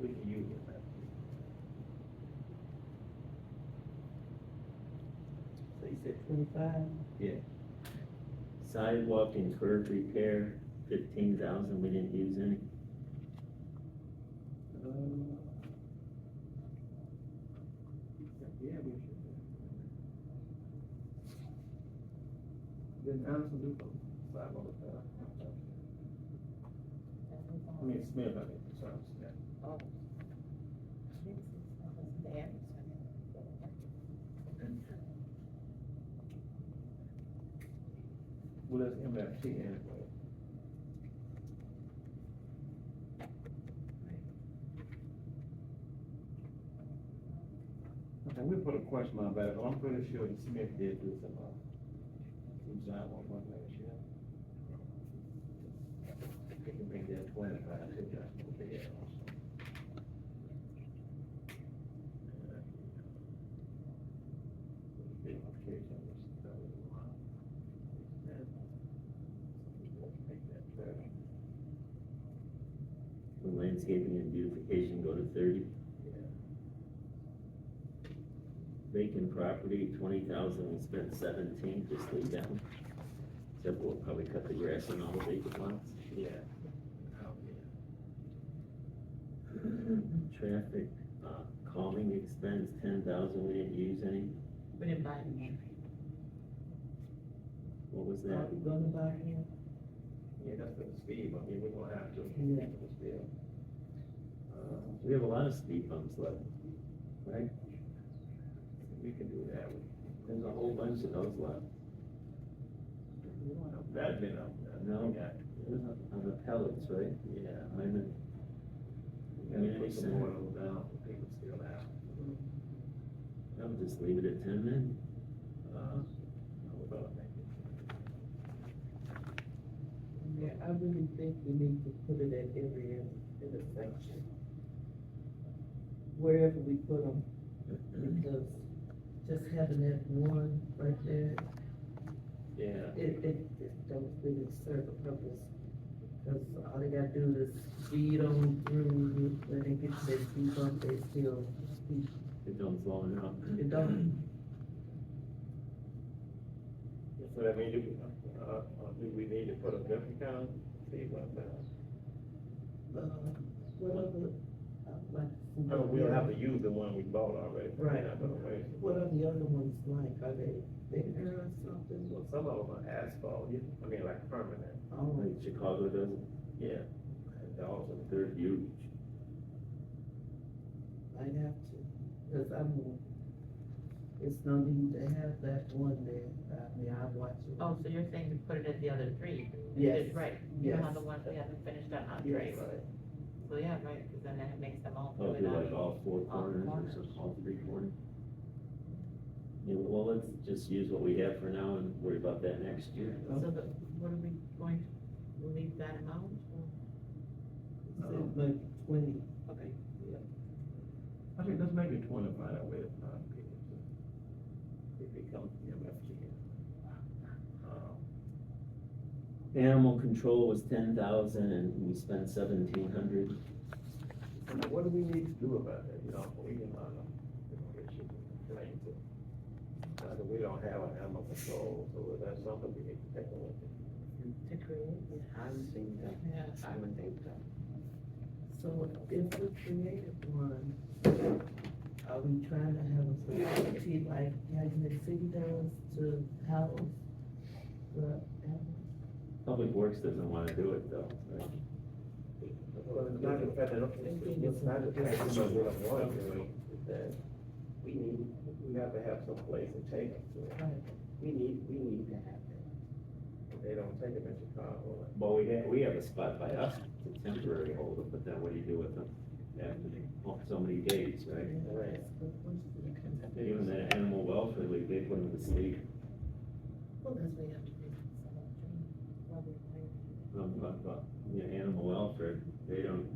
with the union rep. So you said twenty-five? Yeah. Sidewalk and curb repair, fifteen thousand, we didn't use any. Uh, Yeah, we should. Then Anderson do the sidewalk, uh, I mean, Smith, I mean, sorry, Smith. Well, that's MFT anyway. Okay, we put a question mark about it, but I'm pretty sure that Smith did do some, uh, some sidewalk one last year. They can bring that twenty-five to that, okay, yeah, also. Big application was started a while. Make that better. The Landscaping and beautification go to thirty. Yeah. Vacant property, twenty thousand, we spent seventeen, just leave that one. Except we'll probably cut the grass on all the vacant lots. Yeah. Oh, yeah. Traffic, uh, calming expense, ten thousand, we didn't use any. We didn't buy any. What was that? we gonna buy him? Yeah, that's for the speed, I mean, we're gonna have to. Yeah. for the speed. Uh, We have a lot of speed bumps left. Right? We can do that, we, There's a whole bunch of those left. we don't have that many of them. No. Yeah. On the pellets, right? Yeah. I'm in- We gotta put some more of those down, so people still have, I would just leave it at ten then. uh, we're gonna make it. Yeah, I really think we need to put it at every in- intersection. Wherever we put them, because just having that one right there, Yeah. it, it, it don't really serve a purpose. Cause all they gotta do is speed on through, when they get to their speed bump, they still speed, It don't uh, slow enough. it don't So that means, do, we- uh, uh, do we need to put a different kind of speed bump down? Uh, Whatever, uh, like. No, we'll have to use the one we bought already. Right. Not gonna waste it. What are the other ones like, are they bigger or something? Well, some of them are asphalt, you- I mean, like permanent, Oh, Like Chicago doesn't, yeah. And also, they're huge. I'd have to, cause I'm, it's no need to have that one there, I mean, I watch it. Oh, so you're saying to put it at the other three? Yes. Right, you know how Yes. the ones we haven't finished on Andre, Yes, so yeah, right, because then that makes them all Oh, do it do like on. all four All corners or corners. some, all three corners? Yeah, well, let's just use what we have for now and worry about that next year. So the, what are we going to, leave that amount? it's like twenty, Okay. I mean, let's make it twenty-five, that way it's not big. If it comes to MFT. Um, Animal control was ten thousand and we spent seventeen hundred. so now What do we need to do about that, you know, we can, uh, you know, issue a complaint to. Uh, that we don't have an animal control, so that's something we need to take a look at. To create? I would think that, Yeah. I would think that. so if we created one, are we trying to have a facility like Calumet City does to house the animals? Public Works doesn't wanna do it though. Well, it's not the fact that, it's not the fact that we don't want to, do it, it's that we need, we have to have some place to take them to. We need, we need to have that. If They don't take them in Chicago. Well, we have, we have a spot by us, it's temporary hold up, but then what do you do with them after they, oh, so many days, right? Right. Even the animal welfare league, they put them to sleep, Well, because we have to do some of the, um, but, but, you know, animal welfare, they don't,